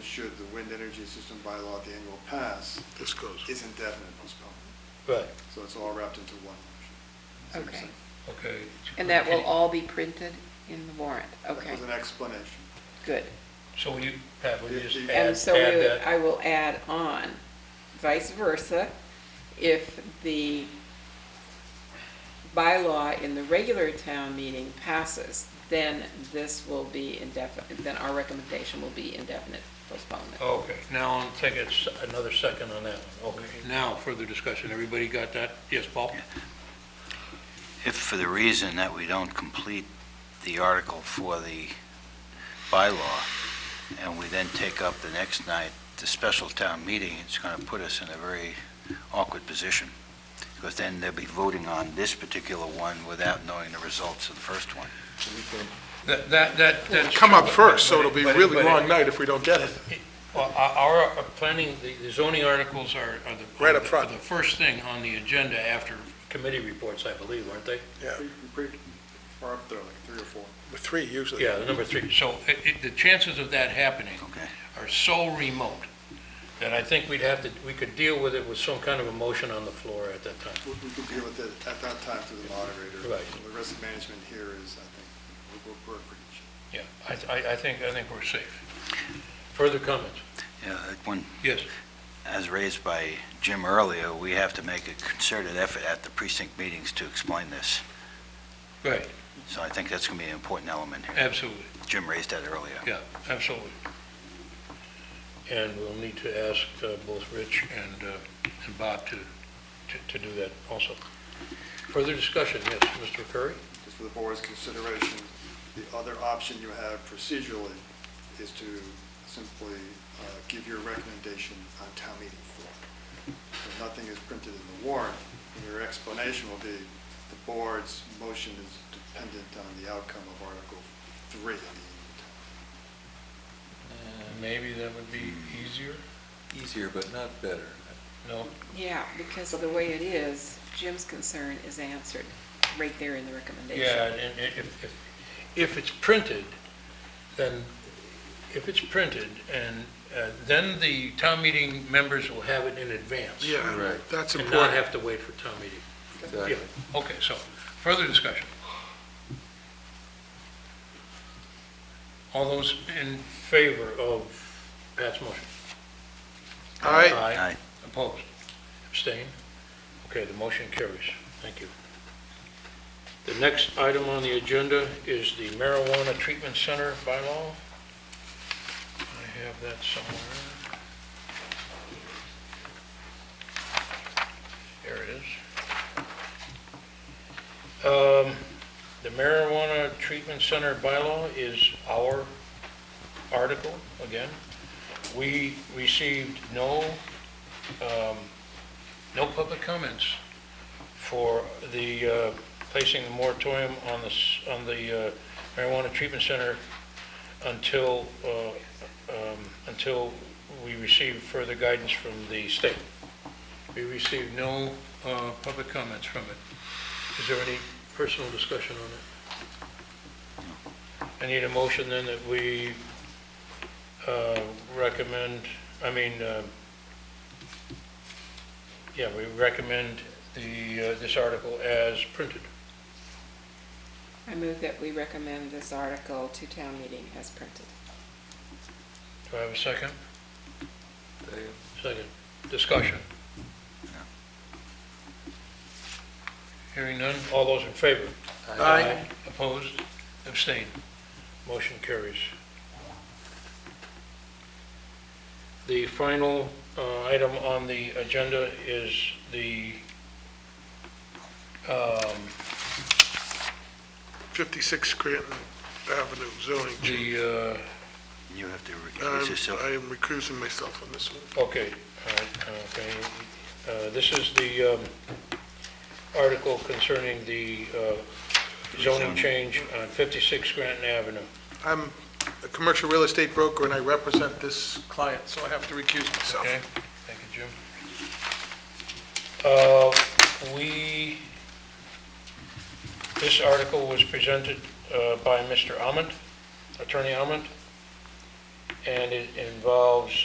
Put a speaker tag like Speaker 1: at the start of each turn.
Speaker 1: should the wind energy system bylaw at the annual pass,
Speaker 2: This goes.
Speaker 1: is indefinite postponement.
Speaker 3: Right,
Speaker 1: So it's all wrapped into one motion. See what I'm
Speaker 4: Okay.
Speaker 1: saying?
Speaker 3: okay.
Speaker 4: And that will all be printed in the warrant, okay,
Speaker 1: That was an explanation.
Speaker 4: good.
Speaker 3: So will you, Pat, will you just add,
Speaker 4: And
Speaker 3: add
Speaker 4: so we would-
Speaker 3: that?
Speaker 4: I will add on vice versa, if the bylaw in the regular town meeting passes, then this will be indefinite, then our recommendation will be indefinite postponement.
Speaker 3: Okay, now I'll take a s- another second on that one. Okay, now further discussion. Everybody got that? Yes, Paul?
Speaker 5: If for the reason that we don't complete the article for the bylaw, and we then take up the next night, the special town meeting, it's going to put us in a very awkward position, because then they'll be voting on this particular one without knowing the results of the first one.
Speaker 3: That, that, that. that's-
Speaker 2: Come up first, so
Speaker 3: but-
Speaker 2: it'll be
Speaker 3: but-
Speaker 2: really
Speaker 3: but-
Speaker 2: long night if we don't get it.
Speaker 3: Well, Our, our planning, the the zoning articles are, are the.
Speaker 2: Right up front.
Speaker 3: are The first thing on the agenda after committee reports, I believe, aren't they?
Speaker 2: Yeah,
Speaker 1: Pretty- pretty Far up there, like three or four.
Speaker 2: with three usually.
Speaker 3: Yeah, the number three. So it, it, the chances of that happening
Speaker 5: Okay.
Speaker 3: are so remote that I think we'd have to, we could deal with it with some kind of a motion on the floor at that time.
Speaker 1: We we could deal with it at that time through the moderator.
Speaker 3: Right.
Speaker 1: The risk management here is, I think, we're, we're pretty sure.
Speaker 3: Yeah, I, I, I think, I think we're safe. Further comments?
Speaker 5: Yeah, When,
Speaker 3: Yes.
Speaker 5: as raised by Jim earlier, we have to make a concerted effort at the precinct meetings to explain this.
Speaker 3: Right,
Speaker 5: So I think that's going to be an important element here.
Speaker 3: absolutely,
Speaker 5: Jim raised that earlier.
Speaker 3: yeah, absolutely. And we'll need to ask uh, both Rich and, uh, and Bob to, to- to do that also. Further discussion, yes, Mr. Curry?
Speaker 1: just for the board's consideration, the other option you have procedurally is to simply uh, give your recommendation on town meeting floor. So nothing is printed in the warrant, and your explanation will be, the board's motion is dependent on the outcome of Article 3 of the
Speaker 3: Uh, Maybe that would be easier?
Speaker 6: Easier, but not better.
Speaker 3: No?
Speaker 4: Yeah, because of the way it is, Jim's concern is answered right there in the recommendation.
Speaker 3: Yeah, and i- if, if, if it's printed, then, if it's printed, and uh, then the town meeting members will have it in advance.
Speaker 2: Yeah,
Speaker 6: Right.
Speaker 2: that's
Speaker 3: And not
Speaker 2: important.
Speaker 3: have to wait for town meeting.
Speaker 6: Exactly.
Speaker 3: Yeah, okay, so, further discussion. All those in favor of Pat's motion?
Speaker 2: All right,
Speaker 3: Aye.
Speaker 5: Aye.
Speaker 3: Opposed? Abstained? Okay, the motion carries. Thank you. The next item on the agenda is the marijuana treatment center bylaw. I have that somewhere. There it is. Um, The marijuana treatment center bylaw is our article, again. We received no um, no public comments for the, uh, placing the moratorium on the, s- on the uh, marijuana treatment center until, uh, um, until we receive further guidance from the state. We received no uh, public comments from it. Is there any personal discussion on it? I need a motion then that we uh, recommend, I mean, uh, yeah, we recommend the, uh, this article as printed.
Speaker 4: I move that we recommend this article to town meeting as printed.
Speaker 3: Do I have a second?
Speaker 6: They-
Speaker 3: Second. Discussion.
Speaker 5: No.
Speaker 3: Hearing none, all those in favor?
Speaker 2: Aye.
Speaker 3: Opposed? Abstained? Motion carries. The final uh, item on the agenda is the, um,
Speaker 2: 56 Scranton Avenue zoning. change.
Speaker 3: the, uh,
Speaker 5: You have to recuse
Speaker 2: Um,
Speaker 5: yourself.
Speaker 2: I am recusing myself on this one.
Speaker 3: uh, okay, all right, okay. Uh, This is the um, article concerning the uh, zoning
Speaker 5: Zoning.
Speaker 3: change on 56 Granton Avenue.
Speaker 2: I'm a commercial real estate broker and I represent this client, so I have to recuse myself.
Speaker 3: Okay, thank you, Jim. Uh, We, this article was presented uh, by Mr. Ament, Attorney Ament, and it involves